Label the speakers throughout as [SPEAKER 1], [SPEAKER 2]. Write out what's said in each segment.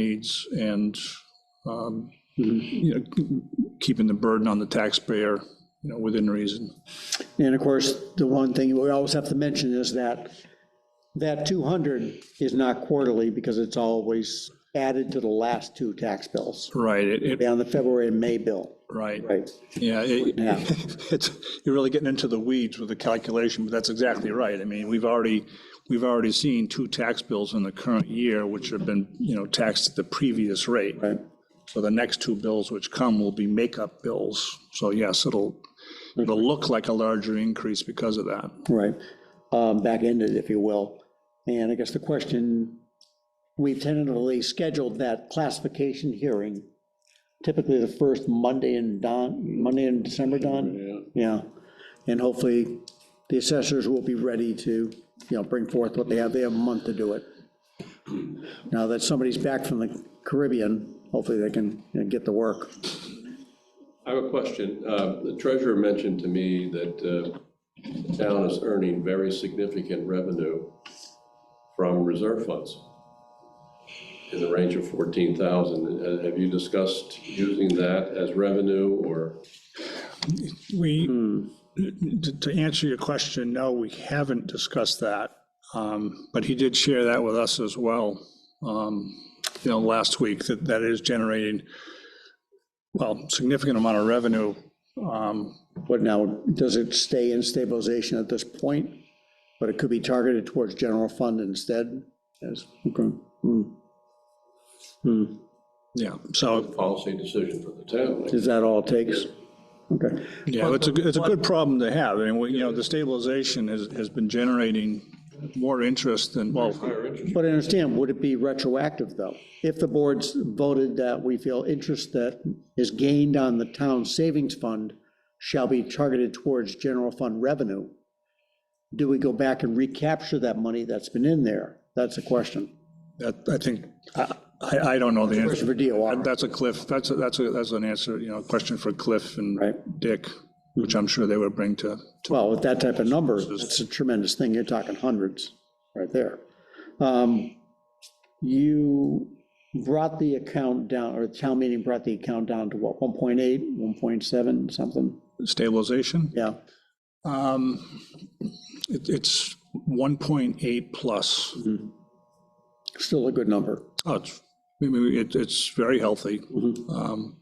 [SPEAKER 1] needs and, um,
[SPEAKER 2] Mm-hmm.
[SPEAKER 1] you know, keeping the burden on the taxpayer, you know, within reason.
[SPEAKER 2] And of course, the one thing we always have to mention is that that 200 is not quarterly because it's always added to the last two tax bills,
[SPEAKER 1] Right, it, it,
[SPEAKER 2] down the February and May bill.
[SPEAKER 1] right,
[SPEAKER 2] Right.
[SPEAKER 1] yeah, it,
[SPEAKER 2] Yeah.
[SPEAKER 1] it's, you're really getting into the weeds with the calculation, but that's exactly right. I mean, we've already, we've already seen two tax bills in the current year, which have been, you know, taxed at the previous rate.
[SPEAKER 2] Right.
[SPEAKER 1] So the next two bills which come will be makeup bills. So yes, it'll,
[SPEAKER 2] Mm-hmm.
[SPEAKER 1] it'll look like a larger increase because of that.
[SPEAKER 2] Right, Um, back-ended, if you will. And I guess the question, we've tentatively scheduled that classification hearing, typically the first Monday in Don, Monday in December, Don? Yeah, and hopefully the assessors will be ready to, you know, bring forth what they have, they have a month to do it. Now that somebody's back from the Caribbean, hopefully they can you know, get the work.
[SPEAKER 3] I have a question. Uh, The treasurer mentioned to me that uh, the town is earning very significant revenue from reserve funds in the range of 14,000. Uh, Have you discussed using that as revenue or?
[SPEAKER 1] We, to to answer your question, no, we haven't discussed that. Um, But he did share that with us as well, um, you know, last week, that that is generating, well, significant amount of revenue. Um,
[SPEAKER 2] But now, does it stay in stabilization at this point? But it could be targeted towards general fund instead? Yes, okay. Hmm. Hmm.
[SPEAKER 1] Yeah, so,
[SPEAKER 3] Policy decision for the town.
[SPEAKER 2] Is that all it takes? Okay,
[SPEAKER 1] yeah, it's a, good- it's a good problem to have. And, we- you know, the stabilization has, has been generating more interest than, well,
[SPEAKER 3] Higher interest.
[SPEAKER 2] but I understand, would it be retroactive, though? If the boards voted that we feel interest that is gained on the town savings fund shall be targeted towards general fund revenue, do we go back and recapture that money that's been in there? That's a question.
[SPEAKER 1] that- I think, I, I I don't know the answer.
[SPEAKER 2] Question for DOR.
[SPEAKER 1] That's a Cliff, that's, a- that's, a that's an answer, you know, question for Cliff and
[SPEAKER 2] Right.
[SPEAKER 1] Dick, which I'm sure they would bring to, to-
[SPEAKER 2] Well, with that type of number, it's a tremendous thing. You're talking hundreds right there. Um, You brought the account down, or the town meeting brought the account down to what, 1.8, 1.7, something?
[SPEAKER 1] stabilization.
[SPEAKER 2] Yeah,
[SPEAKER 1] Um, it- It's 1.8 plus.
[SPEAKER 2] still a good number.
[SPEAKER 1] Oh, it's, I mean, it- it's very healthy. Um,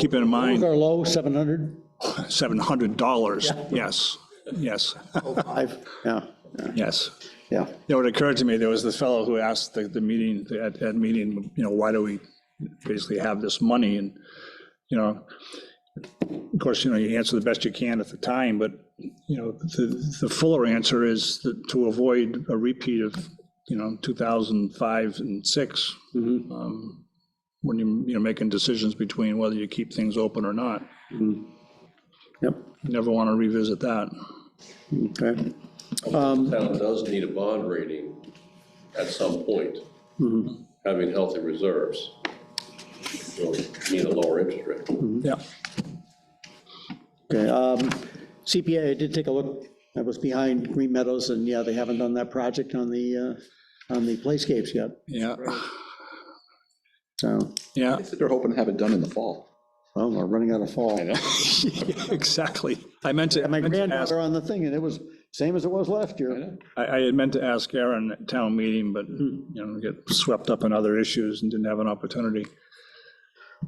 [SPEAKER 1] Keep in
[SPEAKER 2] What was
[SPEAKER 1] mind,
[SPEAKER 2] our low, 700?
[SPEAKER 1] $700, yes, yes,
[SPEAKER 2] Five? Yeah,
[SPEAKER 1] yes.
[SPEAKER 2] yeah.
[SPEAKER 1] You know, it occurred to me, there was the fellow who asked the, the meeting, at, at meeting, you know, why do we basically have this money? And, you know, of course, you know, you answer the best you can at the time, but, you know, the, the fuller answer is that to avoid a repeat of, you know, 2005 and six, um, when you, you know, making decisions between whether you keep things open or not.
[SPEAKER 2] Yep,
[SPEAKER 1] You Never want to revisit that.
[SPEAKER 2] okay.
[SPEAKER 3] The Town does need a bond rating at some point, having healthy reserves. will Need a lower interest rate.
[SPEAKER 1] Yeah.
[SPEAKER 2] Okay, um, CPA, I did take a look, I was behind Green Meadows, and yeah, they haven't done that project on the, uh, on the playscapes yet,
[SPEAKER 1] Yeah,
[SPEAKER 2] so,
[SPEAKER 1] yeah,
[SPEAKER 4] They're hoping to have it done in the fall.
[SPEAKER 2] well, we're running out of fall.
[SPEAKER 1] exactly. I meant to.
[SPEAKER 2] And my
[SPEAKER 1] I meant to ask-
[SPEAKER 2] granddaughter on the thing, and it was same as it was last year.
[SPEAKER 1] I, I had meant to ask Aaron at town meeting, but, you know, get swept up in other issues and didn't have an opportunity.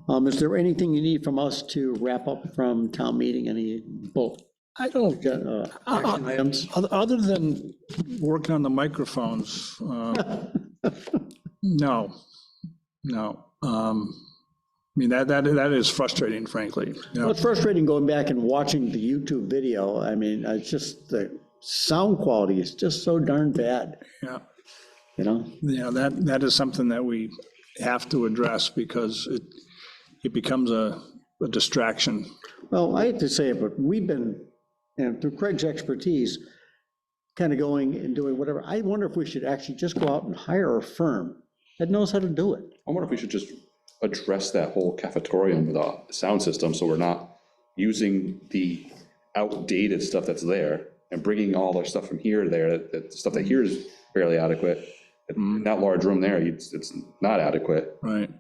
[SPEAKER 2] Um, is there anything you need from us to wrap up from town meeting, any bulk,
[SPEAKER 1] I don't,
[SPEAKER 2] uh, action items?
[SPEAKER 1] oth- other than working on the microphones, uh, no, no. Um, I mean, that, that, that is frustrating, frankly. you know.
[SPEAKER 2] Well, It's frustrating going back and watching the YouTube video, I mean, it's just, the sound quality is just so darn bad,
[SPEAKER 1] Yeah,
[SPEAKER 2] you know?
[SPEAKER 1] yeah, that, that is something that we have to address because it, it becomes a a distraction.
[SPEAKER 2] Well, I hate to say it, but we've been, and through Craig's expertise, kind of going and doing whatever, I wonder if we should actually just go out and hire a firm that knows how to do it.
[SPEAKER 4] I wonder if we should just address that whole cafetorium with a sound system, so we're not using the outdated stuff that's there and bringing all our stuff from here to there, that, that stuff that here is fairly adequate, In that large room there, it's, it's not adequate.
[SPEAKER 1] right?